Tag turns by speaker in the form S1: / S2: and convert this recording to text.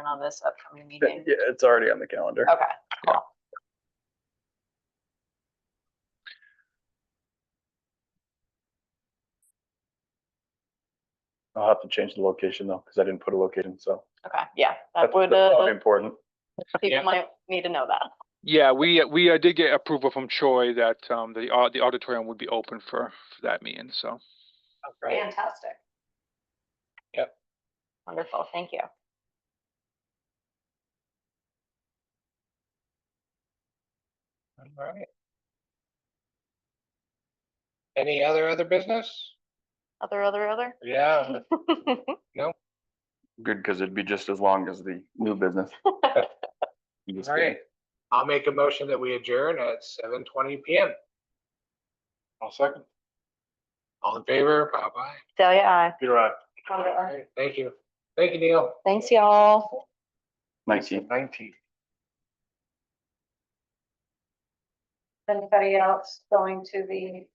S1: on this upcoming
S2: Yeah,
S1: meeting?
S2: it's already on the calendar.
S1: Okay,
S2: I'll have to change the location though, because I didn't put a location, so.
S1: okay, yeah, that
S2: that's-
S1: would,
S2: that's probably
S1: uh,
S2: Important.
S1: people
S3: Yeah.
S1: might need to know that.
S3: Yeah, we, uh, we uh, did get approval from Troy that um, the, au- the auditorium would be open for, for that meeting, so.
S1: Fantastic.
S3: Yep.
S1: Wonderful, thank you.
S4: All right. Any other, other business?
S1: Other, other, other?
S4: Yeah,
S2: Good, because it'd be just as long as the new business. You just
S4: all right. I'll make a motion that we adjourn at seven twenty PM.
S2: I'll second.
S4: All in favor? Bye-bye.
S1: Delia, aye.
S2: You're right.
S4: All right, thank you. Thank you, Neil.
S1: Thanks, y'all.
S2: Nineteen.
S4: Nineteen.
S1: Anybody else going to the